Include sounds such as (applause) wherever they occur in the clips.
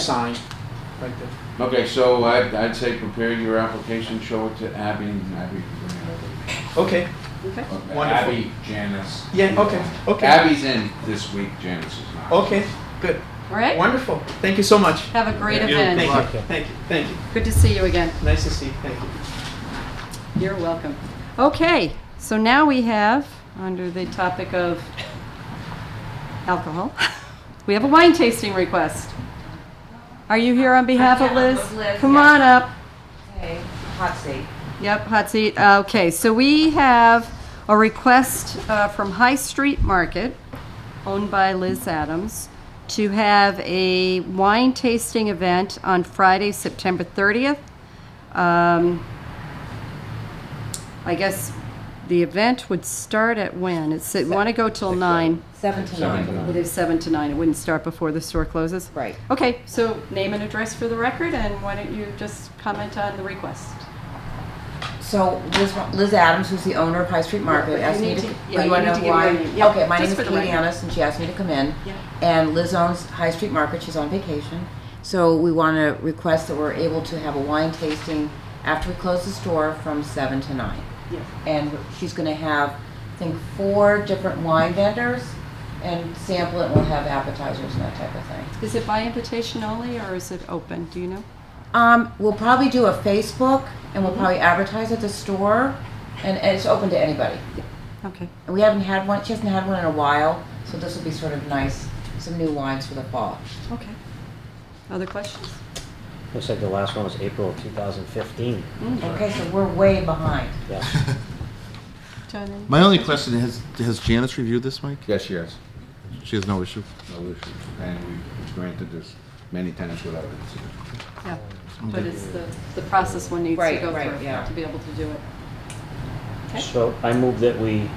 sign, right there. Okay, so I'd, I'd say prepare your application, show it to Abby, and Abby can bring it Okay, Okay. over. Wonderful. Abby, Janice. yeah, okay, okay, Abby's in this week, Janice is not. okay, good, All right. wonderful, thank you so much. Have a great Thank you. Thank event. you, thank you, thank you, Good to see you again. nice to see you, thank you. You're welcome. Okay, so now we have, under the topic of alcohol, we have a wine tasting request. Are you here on behalf of Yeah, Liz? with Liz, Come yeah. on up. Okay, hot seat. Yep, hot seat. Okay, so we have a request uh, from High Street Market, owned by Liz Adams, to have a wine tasting event on Friday, September 30th. Um, I guess the event would start at when? It's, it want to go till nine. Seven to Seven to nine. nine. It is seven to nine. It wouldn't start before the store closes. Right. Okay, so name and address for the record, and why don't you just comment on the request? So Liz, Liz Adams, who's the owner of High Street But Market, you asked me need to. to- oh, yeah, you wanna need know to give why? her the- yeah, Okay, my just name is for the Katie record. Annis, and she asked me to come in. Yeah. And Liz owns High Street Market, she's on vacation. So we want to request that we're able to have a wine tasting after we close the store from seven to nine. Yeah. And she's going to have, I think, four different wine vendors and sample it, and we'll have appetizers and that type of thing. Is it by invitation only or is it open? Do you know? Um, we'll probably do a Facebook and we'll probably advertise at the store and, and it's open to anybody. Okay. And we haven't had one, she hasn't had one in a while, so this will be sort of nice, some new wines for the fall. Okay. Other questions? Looks like the last one was April of 2015. Okay, so we're way behind. Yes. John, any- (laughs) My only question has has Janice reviewed this, Mike? Yes, she is. She has no issue. No issue. And we've granted this many times without incident. Yeah. But it's the, the process one needs to Right, go right, through yeah. to be able to do it. Okay. So I move that we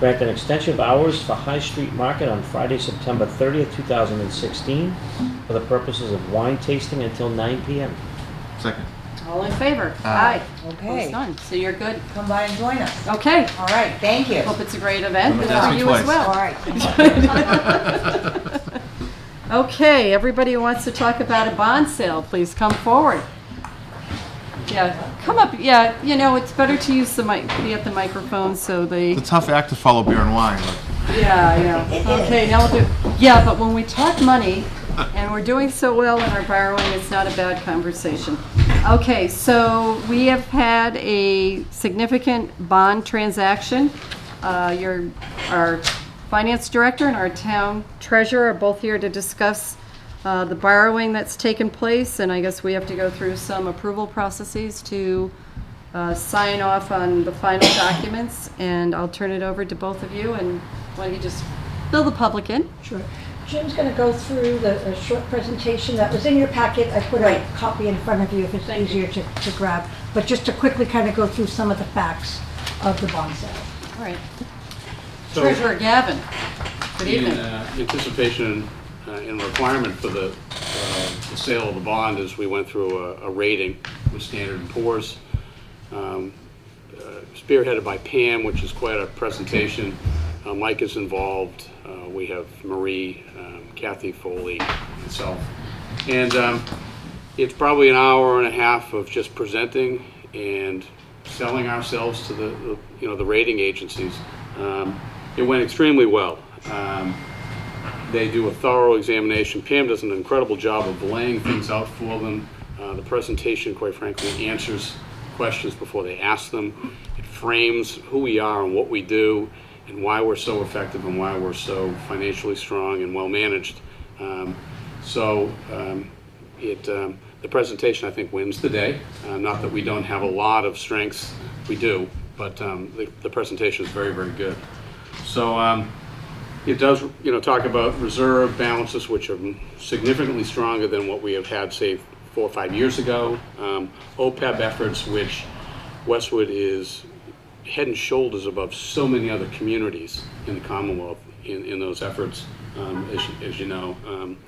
grant an extension of hours for High Street Market on Friday, September 30th, 2016, for the purposes of wine tasting until 9 PM. Second. All in favor? Aye. Aye. Opposed? Okay, None. So you're good. come by and join us. Okay. All right, thank you. Hope it's a great event Don't and ask for me you as twice. All well. right. (laughs) Okay, everybody who wants to talk about a bond sale, please come forward. Yeah, come up. Yeah, you know, it's better to use the mic, be at the microphone so they. It's a tough act to follow beer and wine. Yeah, yeah. Okay, now we'll do, yeah, but when we talk money, and we're doing so well in our borrowing, it's not a bad conversation. Okay, so we have had a significant bond transaction. Uh, Your, our finance director and our town treasurer are both here to discuss uh, the borrowing that's taken place, and I guess we have to go through some approval processes to uh, sign off on the final documents, and I'll turn it over to both of you, and why don't you just fill the public in? Sure. Jim's going to go through the, the short presentation that was in your packet. I put a copy in front of you if it's easier to, to grab. But just to quickly kind of go through some of the facts of the bond sale. All right. So- Treasurer Gavin, good In evening. uh, anticipation uh, and requirement for the uh, the sale of the bond is we went through a- a rating with Standard and Poor's, um, uh, spearheaded by Pam, which is quite a presentation. Uh, Mike is involved. Uh, We have Marie, um, Kathy Foley, myself. And um, it's probably an hour and a half of just presenting and selling ourselves to the, the- you know, the rating agencies. Um, It went extremely well. Um, they do a thorough examination. Pam does an incredible job of laying things out for them. Uh, the presentation, quite frankly, answers questions before they ask them. It frames who we are and what we do and why we're so effective and why we're so financially strong and well managed. Um, so um, it, um, the presentation, I think, wins the day. Uh, not that we don't have a lot of strengths, we do, but um, the, the presentation is very, very good. So um, it does, you know, talk about reserve balances, which are significantly stronger than what we have had, say, four or five years ago. Um, OPEB efforts, which Westwood is head and shoulders above so many other communities in the Commonwealth in, in those efforts, um, as, you- as you know. Um,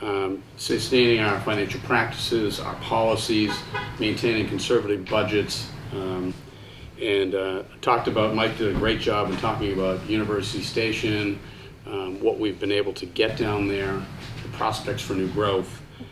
um, sustaining our financial practices, our policies, maintaining conservative budgets, um, and uh, talked about, Mike did a great job in talking about University Station, um, what we've been able to get down there, the prospects for new growth,